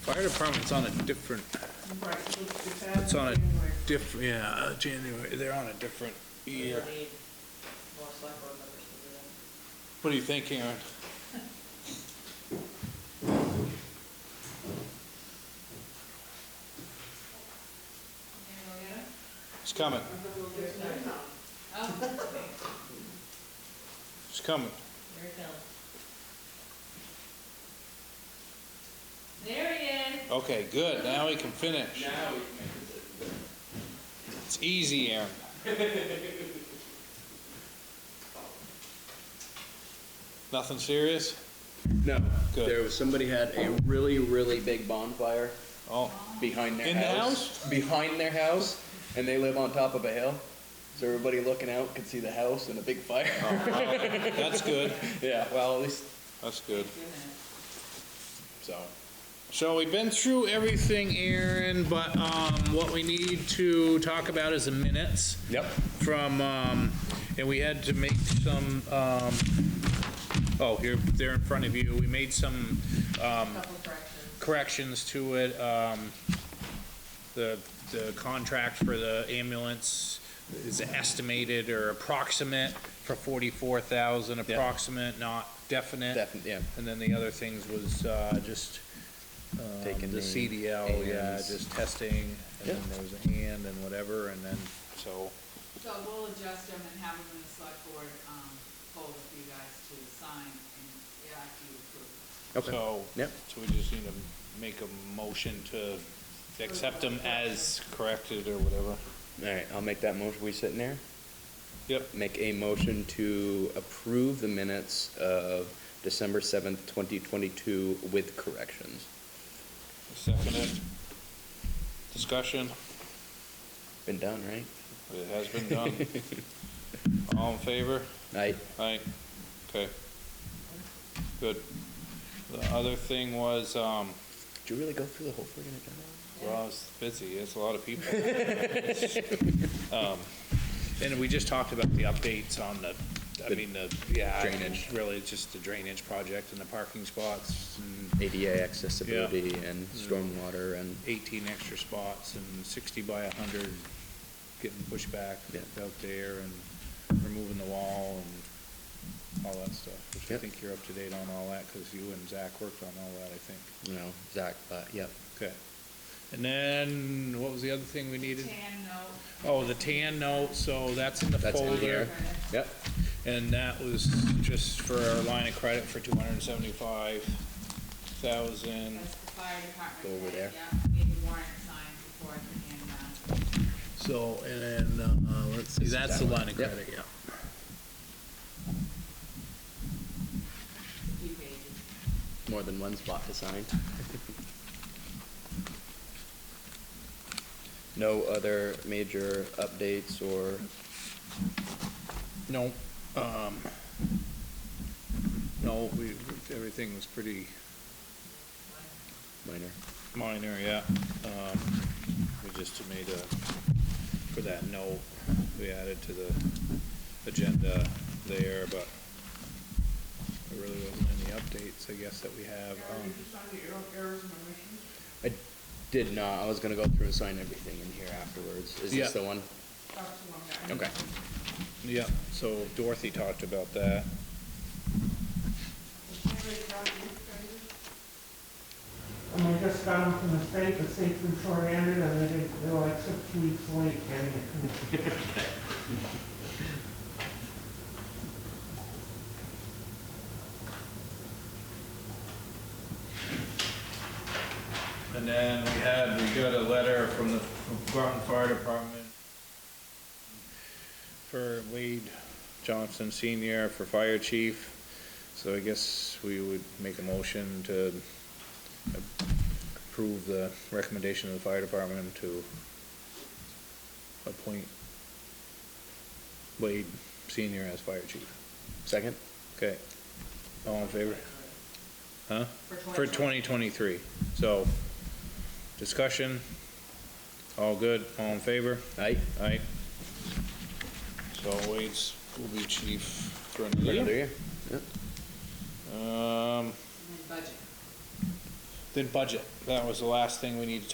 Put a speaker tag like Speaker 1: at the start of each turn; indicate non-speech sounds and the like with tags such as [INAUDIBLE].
Speaker 1: Fire department's on a different,
Speaker 2: Right, so it's
Speaker 1: It's on it.
Speaker 2: happening where
Speaker 1: diff, yeah, uh, January, they're on a different year.
Speaker 2: we need more select board members to do that.
Speaker 1: What do you think, Aaron? It's coming,
Speaker 2: There's no time.
Speaker 1: it's coming.
Speaker 2: There it comes. There he is.
Speaker 1: Okay, good, now we can finish. It's easy, [LAUGHS] Aaron. Nothing serious?
Speaker 3: No,
Speaker 1: Good.
Speaker 3: there was, somebody had a really, really big bonfire
Speaker 1: Oh,
Speaker 3: behind their
Speaker 1: In the
Speaker 3: house. Behind their house, and they live on top of a hill. So everybody looking out could see the house and a big fire.
Speaker 1: Oh. that's good,
Speaker 3: [LAUGHS] Yeah, well, at least,
Speaker 1: that's good.
Speaker 3: so.
Speaker 1: So we've been through everything, Aaron, but, um, what we need to talk about is the minutes.
Speaker 3: Yep.
Speaker 1: from, um, and we had to make some, um, oh, here, they're in front of you. We made some um,
Speaker 2: Couple corrections.
Speaker 1: corrections to it, um, the, the contract for the ambulance is estimated or approximate for forty-four thousand,
Speaker 3: Yeah.
Speaker 1: approximate, not definite.
Speaker 3: Definitely, yeah.
Speaker 1: And then the other things was, uh, just, um,
Speaker 3: Taking
Speaker 1: the
Speaker 3: the
Speaker 1: CDL, yeah,
Speaker 3: ands.
Speaker 1: just testing, and
Speaker 3: Yeah.
Speaker 1: then there was a hand and whatever, and then, so,
Speaker 4: So we'll adjust them and have them in the select board, um, poll for you guys to sign and, yeah, after you approve.
Speaker 3: Okay.
Speaker 1: So, so
Speaker 3: Yep.
Speaker 1: we just need to make a motion to accept them as corrected or whatever.
Speaker 3: All right, I'll make that motion. We sitting there?
Speaker 1: Yep.
Speaker 3: Make a motion to approve the minutes of December seventh, twenty twenty-two with corrections.
Speaker 1: Seconded. Discussion,
Speaker 3: Been done, right?
Speaker 1: it has been
Speaker 3: [LAUGHS]
Speaker 1: done. All in favor?
Speaker 3: Aye.
Speaker 1: Aye. Okay. Good. The other thing was, um,
Speaker 3: Did you really go through the whole friggin' agenda?
Speaker 1: well, it's busy, it's a lot of
Speaker 3: [LAUGHS]
Speaker 1: people. Um, And we just talked about the updates on the, I
Speaker 3: The
Speaker 1: mean, the, yeah. I mean,
Speaker 3: drainage.
Speaker 1: Really, it's just the drainage project and the parking spots and
Speaker 3: ADA accessibility and stormwater and,
Speaker 1: 18 extra spots and 60 by 100 getting pushed back
Speaker 3: Yeah.
Speaker 1: out there and removing the wall and all that stuff, which I
Speaker 3: Yep.
Speaker 1: think you're up to date on all that, because you and Zach worked on all that, I think.
Speaker 3: you know, Zach, but, yep.
Speaker 1: Okay. And then, what was the other thing we needed?
Speaker 4: Tan note.
Speaker 1: Oh, the tan note, so that's in the
Speaker 3: That's in
Speaker 1: folder.
Speaker 3: here. Yep.
Speaker 1: And that was just for our line of credit for 275,000.
Speaker 4: That's the fire department.
Speaker 3: Go over
Speaker 4: plan,
Speaker 3: there.
Speaker 4: Yeah, need the warrant signed before I can hand uh, them out.
Speaker 1: So, and then, uh, let's see,
Speaker 3: This is
Speaker 1: that's the
Speaker 3: that one.
Speaker 1: line of
Speaker 3: Yep.
Speaker 1: credit, yeah.
Speaker 4: a few pages.
Speaker 3: More than one spot to sign. No other major updates or,
Speaker 1: No, um, no, we, everything was pretty
Speaker 3: minor.
Speaker 1: minor, yeah. Um, we just made a, for that note, we added to the agenda there, but there really wasn't any updates, I guess, that we have. Um,
Speaker 2: Did you sign the error- errors and omissions?
Speaker 3: I did not, I was gonna go through and sign everything in here afterwards. Is
Speaker 1: Yeah.
Speaker 3: this the one?
Speaker 2: Talk to one guy.
Speaker 3: Okay.
Speaker 1: yeah, so Dorothy talked about that.
Speaker 2: And I just got them from the state, the state from short handed, and they did, they were like six weeks late getting it. to me.
Speaker 1: And then we had, we got a letter from the Groton Fire Department for Wade Johnson Senior for Fire Chief. So I guess we would make a motion to approve the recommendation of the fire department to appoint Wade Senior as fire chief.
Speaker 3: Second?
Speaker 1: Okay. All in favor? Huh? For
Speaker 4: For
Speaker 1: twenty
Speaker 4: twenty.
Speaker 1: twenty-three. So, discussion, all good, all in favor?
Speaker 3: Aye?
Speaker 1: Aye. So Wade's will be chief for
Speaker 3: For
Speaker 1: another
Speaker 3: another
Speaker 1: year.
Speaker 3: year? Yep.
Speaker 1: Um,
Speaker 4: And then budget.
Speaker 1: Then budget, that was the last thing we needed to